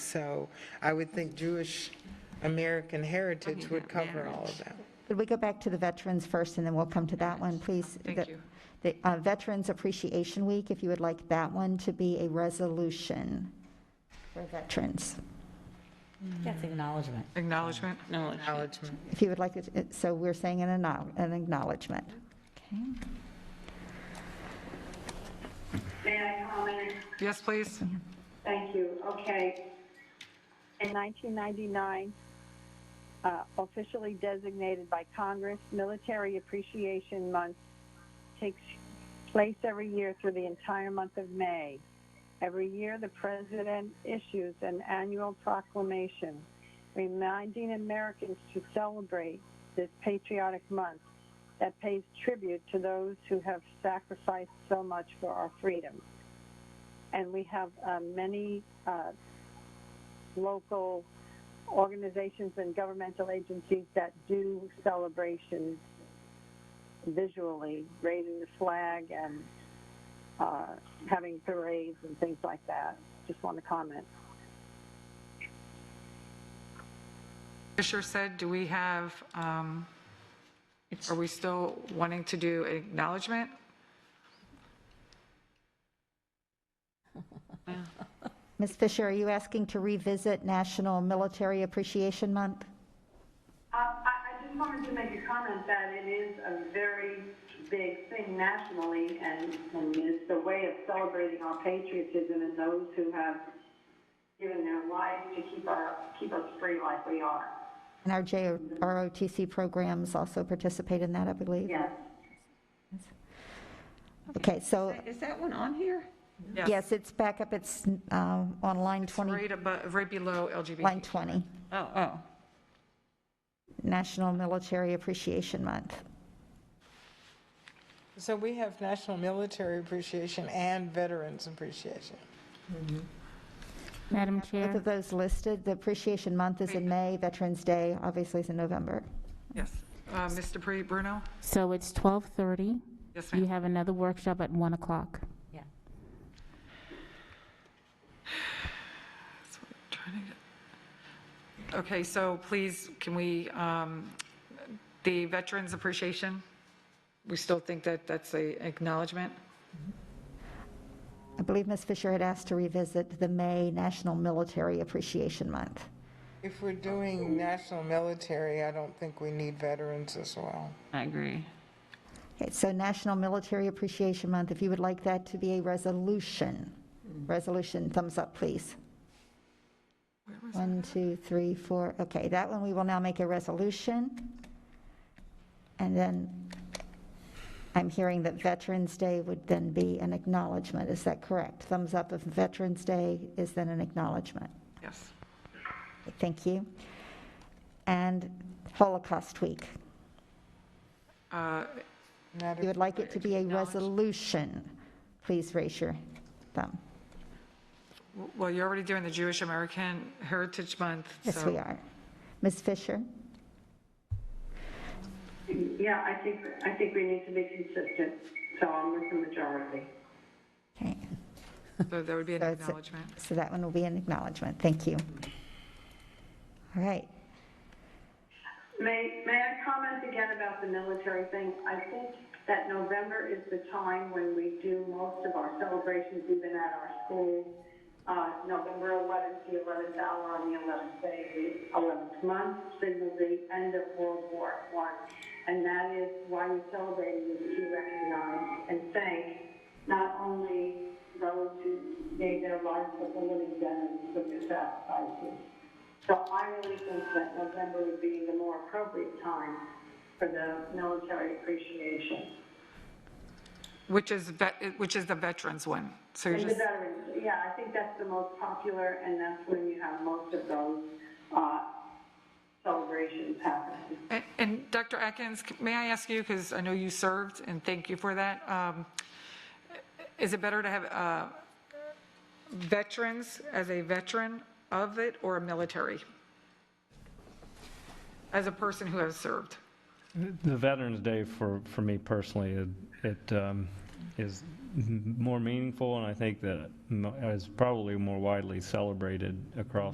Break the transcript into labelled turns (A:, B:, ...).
A: So I would think Jewish American heritage would cover all of that.
B: Could we go back to the veterans first, and then we'll come to that one, please?
C: Thank
B: The-
C: you.
B: The uh, Veterans Appreciation Week, if you would like that one to be a resolution for veterans.
D: That's acknowledgement.
C: Acknowledgement?
D: Knowledge.
A: Acknowledgement.
B: If you would like, it, so we're saying an acknowl- an acknowledgement. Okay.
E: May I comment?
C: Yes, please.
E: Thank you. Okay.
F: In 1999, uh, officially designated by Congress, Military Appreciation Month takes place every year through the entire month of May. Every year, the president issues an annual proclamation reminding Americans to celebrate this patriotic month that pays tribute to those who have sacrificed so much for our freedom. And we have uh, many uh, local organizations and governmental agencies that do celebrations visually, raising the flag and uh, having parades and things like that. Just want to comment.
C: Fisher said, do we have, um, are we still wanting to do acknowledgement?
B: Ms. Fisher, are you asking to revisit National Military Appreciation Month?
E: Uh, I, I just wanted to make a comment that it is a very big thing nationally, and, and it's a way of celebrating our patriotism and those who have given their lives to keep our, keep us free like we are.
B: And our J- ROTC programs also participate in that, I believe?
E: Yes.
B: Okay, so,
D: Is that one on here?
B: yes, it's back up, it's uh, on line 20,
C: Right above, right below LGBT.
B: line 20,
D: Oh, oh.
B: National Military Appreciation Month.
A: So we have National Military Appreciation and Veterans Appreciation.
G: Madam
B: Both
G: Chair,
B: of those listed, the Appreciation Month is in May, Veterans Day obviously is in November.
C: Yes. Uh, Ms. Dupree, Bruno?
G: so it's 12:30.
C: Yes,
G: You
C: ma'am.
G: have another workshop at 1 o'clock.
D: Yeah.
C: That's what I'm trying to get- Okay, so please, can we, um, the Veterans Appreciation? We still think that that's a acknowledgement?
B: I believe Ms. Fisher had asked to revisit the May National Military Appreciation Month.
A: If we're doing national military, I don't think we need veterans as well.
D: I agree.
B: Okay, so National Military Appreciation Month, if you would like that to be a resolution, resolution, thumbs up, please. One, two, three, four, okay, that one, we will now make a resolution. And then I'm hearing that Veterans Day would then be an acknowledgement, is that correct? Thumbs up if Veterans Day is then an acknowledgement.
C: Yes.
B: Thank you. And Holocaust Week,
C: Uh,
A: Not
B: you
A: if-
B: would like it to be a resolution, please raise your thumb.
C: w- Well, you're already doing the Jewish American Heritage Month, so.
B: Yes, we are. Ms. Fisher?
E: Yeah, I think, I think we need to be consistent, so I'm with the majority.
B: Okay.
C: So that would be an
B: So it's-
C: acknowledgement.
B: So that one will be an acknowledgement. Thank you. All right.
E: May, may I comment again about the military thing? I think that November is the time when we do most of our celebrations, even at our schools. Uh, November 11th, the 11th hour on the 11th day, of the 11th month, signals the end of World War One, And that is why we celebrate is to recognize and thank not only those who gave their lives for the living veterans, but the sacrifices. So I really think that November would be the more appropriate time for the military appreciation.
C: Which is, vet- which is the veterans one. So you're
E: And the
C: just,
E: veterans, yeah, I think that's the most popular, and that's when you have most of those uh, celebrations happening.
C: and- and Dr. Atkins, may I ask you, because I know you served, and thank you for that. um, Is it better to have uh, veterans as a veteran of it or a military? As a person who has served?
H: The Veterans Day for, for me personally, it- it um, is m- more meaningful, and I think that m- is probably more widely celebrated across